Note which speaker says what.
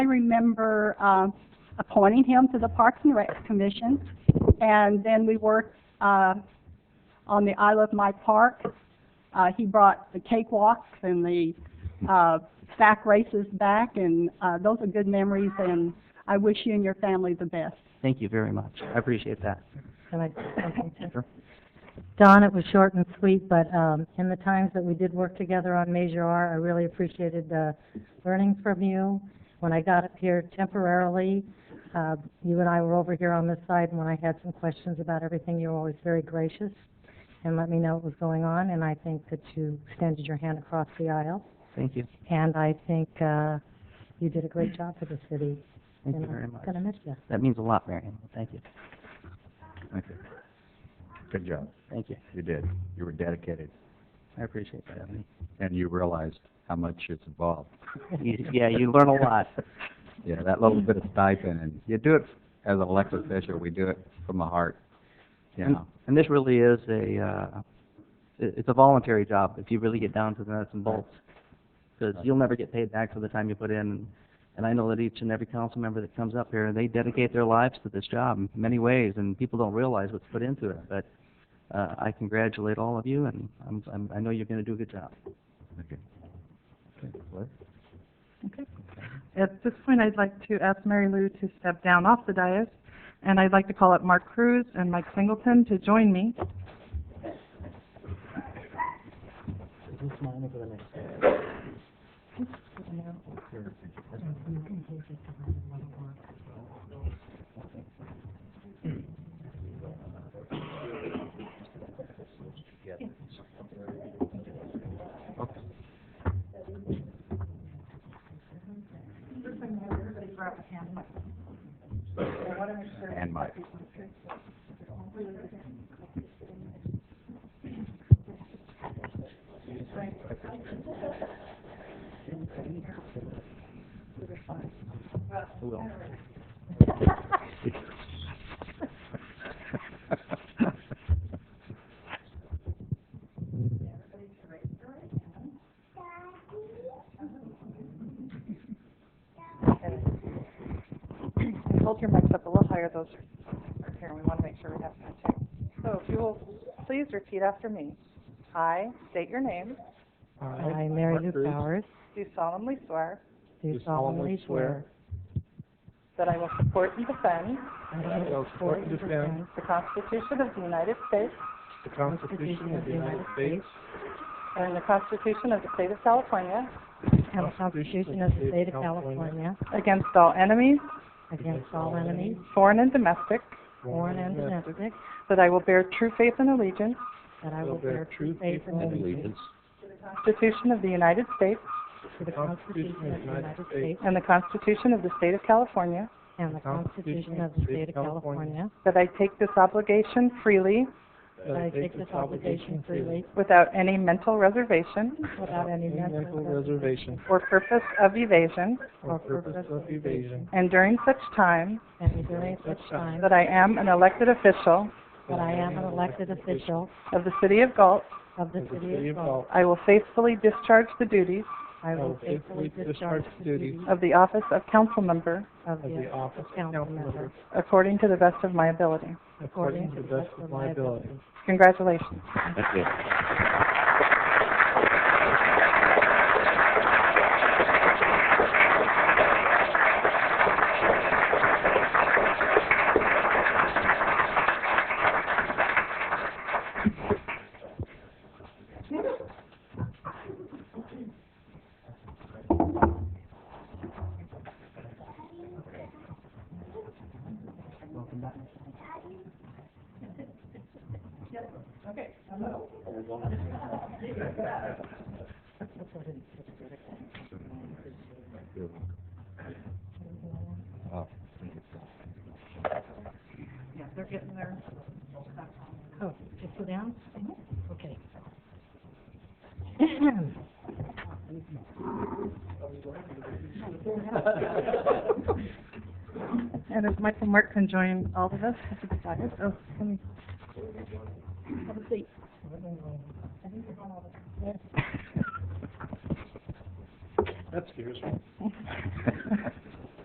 Speaker 1: I remember, um, appointing him to the Parks and Rec Commission, and then we worked, uh, on the I Love My Park. Uh, he brought the cakewalks and the, uh, sack races back, and, uh, those are good memories, and I wish you and your family the best.
Speaker 2: Thank you very much. I appreciate that.
Speaker 3: Can I say something too?
Speaker 2: Sure.
Speaker 3: Don, it was short and sweet, but, um, in the times that we did work together on Measure R, I really appreciated, uh, learning from you. When I got up here temporarily, uh, you and I were over here on this side, and when I had some questions about everything, you were always very gracious and let me know what was going on, and I think that you extended your hand across the aisle.
Speaker 2: Thank you.
Speaker 3: And I think, uh, you did a great job for the city.
Speaker 2: Thank you
Speaker 3: and I'm
Speaker 2: very much.
Speaker 3: Gonna miss you.
Speaker 2: That means a lot, Marion. Thank you.
Speaker 4: Okay. Good job.
Speaker 2: Thank you.
Speaker 4: You did. You were dedicated,
Speaker 2: I appreciate that, Ebony.
Speaker 4: and you realized how much it's involved.
Speaker 2: You- Yeah, you learn a lot.
Speaker 4: Yeah, that little bit of stipend, and you do it as an elected official, we do it from the heart, you
Speaker 2: And-
Speaker 4: know?
Speaker 2: And this really is a, uh, it- it's a voluntary job if you really get down to the nuts and bolts. Because you'll never get paid back for the time you put in. And I know that each and every council member that comes up here, they dedicate their lives to this job in many ways, and people don't realize what's put into it. But, uh, I congratulate all of you, and I'm, I'm, I know you're gonna do a good job.
Speaker 4: Okay. Okay, Liz?
Speaker 5: At this point, I'd like to ask Mary Lou to step down off the dais, and I'd like to call up Mark Cruz and Mike Singleton to join me.
Speaker 4: And Mike.
Speaker 6: Hold your mics up a little higher, those are here, we want to make sure we have contact. So if you will please repeat after me. I state your name,
Speaker 3: I, Mary Lou Powers,
Speaker 6: do solemnly swear
Speaker 3: do solemnly swear
Speaker 6: that I will support and defend
Speaker 3: I will support and defend
Speaker 6: the Constitution of the United States
Speaker 7: The Constitution of the United States.
Speaker 6: and the Constitution of the State of California
Speaker 3: and the Constitution of the State of California
Speaker 6: against all enemies,
Speaker 3: against all enemies,
Speaker 6: foreign and domestic,
Speaker 3: foreign and domestic,
Speaker 6: that I will bear true faith and allegiance
Speaker 3: that I will bear true faith and allegiance
Speaker 6: to the Constitution of the United States
Speaker 3: to the Constitution of the United States
Speaker 6: and the Constitution of the State of California,
Speaker 3: and the Constitution of the State of California,
Speaker 6: that I take this obligation freely
Speaker 3: that I take this obligation freely
Speaker 6: without any mental reservation
Speaker 3: without any mental reservation
Speaker 6: or purpose of evasion,
Speaker 3: or purpose of evasion,
Speaker 6: and during such time
Speaker 3: and during such time
Speaker 6: That I am an elected official
Speaker 3: that I am an elected official
Speaker 6: of the City of Galt,
Speaker 3: of the City of Galt,
Speaker 6: I will faithfully discharge the duties
Speaker 3: I will faithfully discharge the duties
Speaker 6: of the office of council member
Speaker 3: of the office of council member
Speaker 6: according to the best of my ability.
Speaker 3: according to the best of my ability.
Speaker 6: Congratulations.
Speaker 4: Oh,
Speaker 3: Yeah, they're getting their Oh, just go down? Okay.
Speaker 5: And if Michael Mark can join all of us, if he's excited. Oh, let me-
Speaker 7: That scares me.